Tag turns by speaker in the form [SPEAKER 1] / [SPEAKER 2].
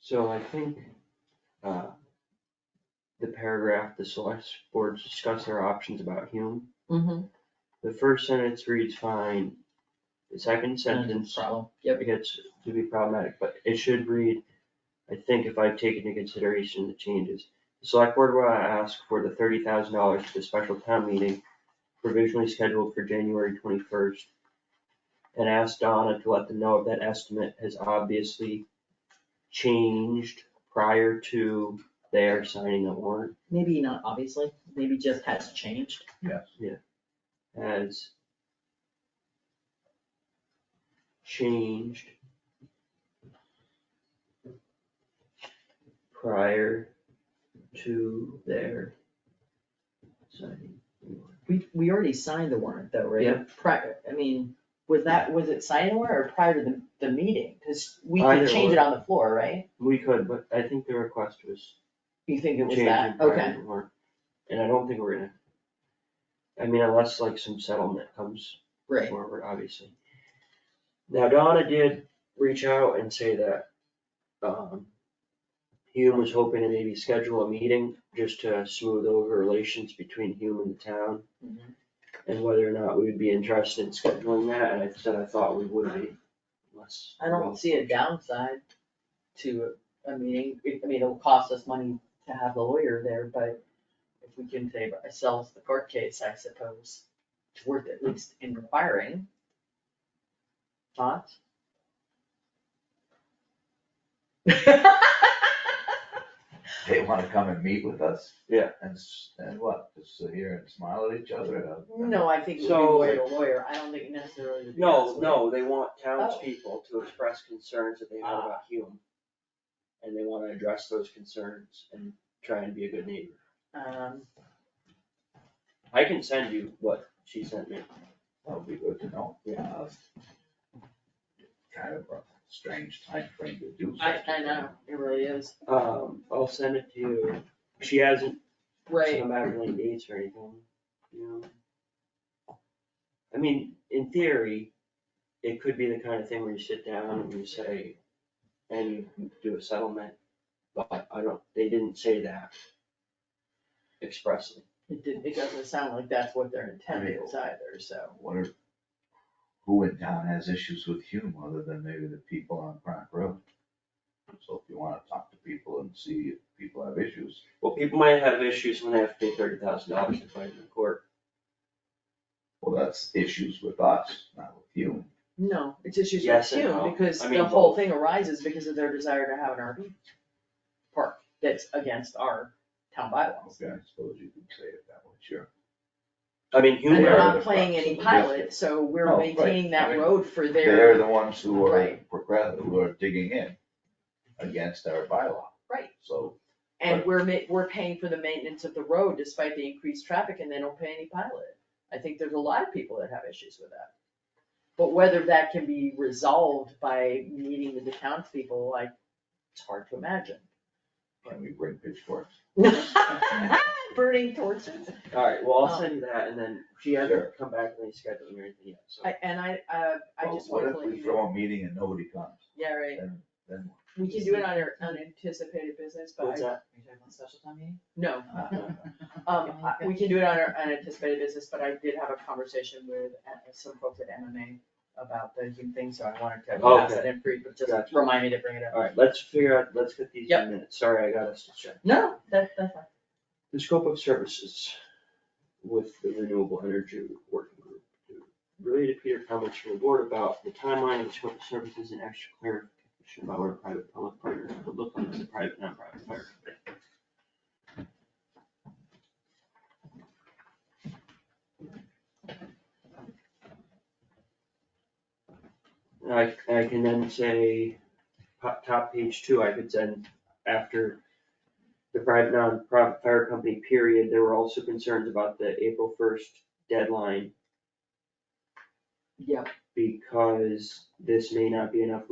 [SPEAKER 1] So I think, uh, the paragraph, the select boards discuss their options about Hume.
[SPEAKER 2] Mm-hmm.
[SPEAKER 1] The first sentence reads fine. The second sentence
[SPEAKER 2] Problem, yep,
[SPEAKER 1] gets to be problematic, but it should read, I think if I take into consideration the changes. The select board will ask for the thirty thousand dollars for the special town meeting provisionally scheduled for January twenty-first. And ask Donna to let them know if that estimate has obviously changed prior to their signing the warrant
[SPEAKER 2] maybe not obviously, maybe just has changed.
[SPEAKER 1] as changed prior to their signing. the warrant.
[SPEAKER 2] We, we already signed the warrant though, right?
[SPEAKER 1] Yeah.
[SPEAKER 2] Prior, I mean, was that, was it signed anywhere or prior to the, the meeting? Cause we
[SPEAKER 1] Either
[SPEAKER 2] could change it
[SPEAKER 1] or.
[SPEAKER 2] on the floor, right?
[SPEAKER 1] We could, but I think the request was
[SPEAKER 2] You think it was
[SPEAKER 1] changed in
[SPEAKER 2] that,
[SPEAKER 1] prior
[SPEAKER 2] okay,
[SPEAKER 1] to the warrant, and I don't think we're gonna. I mean, unless like some settlement comes
[SPEAKER 2] right,
[SPEAKER 1] forward, obviously. Now Donna did reach out and say that, um, Hume was hoping to maybe schedule a meeting just to smooth over relations between Hume and the town.
[SPEAKER 2] Mhm.
[SPEAKER 1] And whether or not we would be interested in scheduling that, and I said I thought we would be, unless.
[SPEAKER 2] I don't see a downside to a meeting, I mean, it'll cost us money to have the lawyer there, but if we can save ourselves the court case, I suppose, it's worth at least inquiring. Thoughts?
[SPEAKER 3] They wanna come and meet with us.
[SPEAKER 1] Yeah.
[SPEAKER 3] And, s- and what, just sit here and smile at each other and. uh,
[SPEAKER 2] No, I think it would be
[SPEAKER 1] So-
[SPEAKER 2] lawyer to lawyer, I don't think necessarily to be.
[SPEAKER 1] No,
[SPEAKER 2] counsel.
[SPEAKER 1] no, they want
[SPEAKER 2] Oh.
[SPEAKER 1] townspeople to express concerns that they
[SPEAKER 2] Ah.
[SPEAKER 1] have about Hume. And they wanna address those concerns and try and be a good neighbor.
[SPEAKER 2] Um,
[SPEAKER 1] I can send you what she sent me.
[SPEAKER 3] That would be good to know.
[SPEAKER 1] Yeah.
[SPEAKER 3] Uh, Kind of a strange time frame to do.
[SPEAKER 2] I,
[SPEAKER 3] such a
[SPEAKER 2] I know, it really is,
[SPEAKER 1] Um, I'll send it to you. She hasn't, she
[SPEAKER 2] right,
[SPEAKER 1] hasn't had any dates or anything, you know? I mean, in theory, it could be the kind of thing where you sit down and you say, and you do a settlement, but I don't, they didn't say that expressly.
[SPEAKER 2] it didn't, it doesn't sound like that's what their intent
[SPEAKER 3] Right.
[SPEAKER 2] is either, so.
[SPEAKER 3] thing. What are, who in town has issues with Hume other than maybe the people on Pratt Road? So if you wanna talk to people and see if people have issues,
[SPEAKER 1] Well, people might have issues when they have to pay thirty thousand dollars to fight in court.
[SPEAKER 3] well, that's issues with us, not with Hume.
[SPEAKER 2] No, it's issues with
[SPEAKER 1] Yes and no.
[SPEAKER 2] Hume, because
[SPEAKER 1] I mean,
[SPEAKER 2] the whole
[SPEAKER 1] both.
[SPEAKER 2] thing arises because of their desire to have an RV park that's against our town bylaws.
[SPEAKER 3] Okay, I suppose you could say it that way, sure.
[SPEAKER 1] I mean,
[SPEAKER 2] And uh,
[SPEAKER 1] Hume,
[SPEAKER 2] we're
[SPEAKER 3] Where
[SPEAKER 1] I
[SPEAKER 3] are
[SPEAKER 2] not
[SPEAKER 3] the
[SPEAKER 2] playing
[SPEAKER 3] parks?
[SPEAKER 2] any
[SPEAKER 3] Yes.
[SPEAKER 2] pilot, so
[SPEAKER 3] Oh,
[SPEAKER 2] we're
[SPEAKER 3] right.
[SPEAKER 2] maintaining
[SPEAKER 3] I
[SPEAKER 2] that
[SPEAKER 3] mean,
[SPEAKER 2] road for
[SPEAKER 3] They're
[SPEAKER 2] their,
[SPEAKER 3] the ones who are,
[SPEAKER 2] Right.
[SPEAKER 3] progress- who are digging in against our bylaw.
[SPEAKER 2] Right.
[SPEAKER 3] So,
[SPEAKER 2] and we're ma- we're paying for the maintenance of the road despite the increased traffic and they don't pay any pilot. I think there's a lot of people that have issues with that. But whether that can be resolved by meeting with the townspeople, like, it's hard to imagine.
[SPEAKER 3] can we bring pitchforks?
[SPEAKER 2] Burning torches.
[SPEAKER 1] alright, well, I'll
[SPEAKER 2] Um,
[SPEAKER 1] send you that and then she hasn't
[SPEAKER 3] Sure.
[SPEAKER 1] come back with any scheduling or anything yet, so.
[SPEAKER 2] I, and I, uh, I
[SPEAKER 3] Well,
[SPEAKER 2] just wanted to
[SPEAKER 3] What
[SPEAKER 2] let
[SPEAKER 3] if
[SPEAKER 2] you
[SPEAKER 3] we
[SPEAKER 2] know,
[SPEAKER 3] throw a meeting and nobody comes?
[SPEAKER 2] yeah, right,
[SPEAKER 3] Then, then
[SPEAKER 2] we can do it on our unanticipated business, but
[SPEAKER 1] What's
[SPEAKER 2] I,
[SPEAKER 1] that?
[SPEAKER 4] Are you talking about special time meeting?
[SPEAKER 2] no,
[SPEAKER 3] what?
[SPEAKER 2] um, I- we can do it on our unanticipated business, but I did have a conversation with uh, some folks at MMA about the Zoom thing, so I wanted to pass it
[SPEAKER 1] Okay.
[SPEAKER 2] in free, but just
[SPEAKER 1] Gotcha.
[SPEAKER 2] remind me to bring it up.
[SPEAKER 1] Alright, let's figure out, let's get these
[SPEAKER 2] Yep.
[SPEAKER 1] in minutes, sorry, I got us distracted.
[SPEAKER 2] No, that, that's fine.
[SPEAKER 1] The scope of services with the renewable energy working group. Related Peter comments from the board about the timeline of the scope of services and extra clarification about what a private public partner would look like as a private, non-private partner. I, I can then say, top, top page two, I could send after the private nonprofit fire company period, there were also concerns about the April first deadline
[SPEAKER 2] Yeah,
[SPEAKER 1] because this may not be enough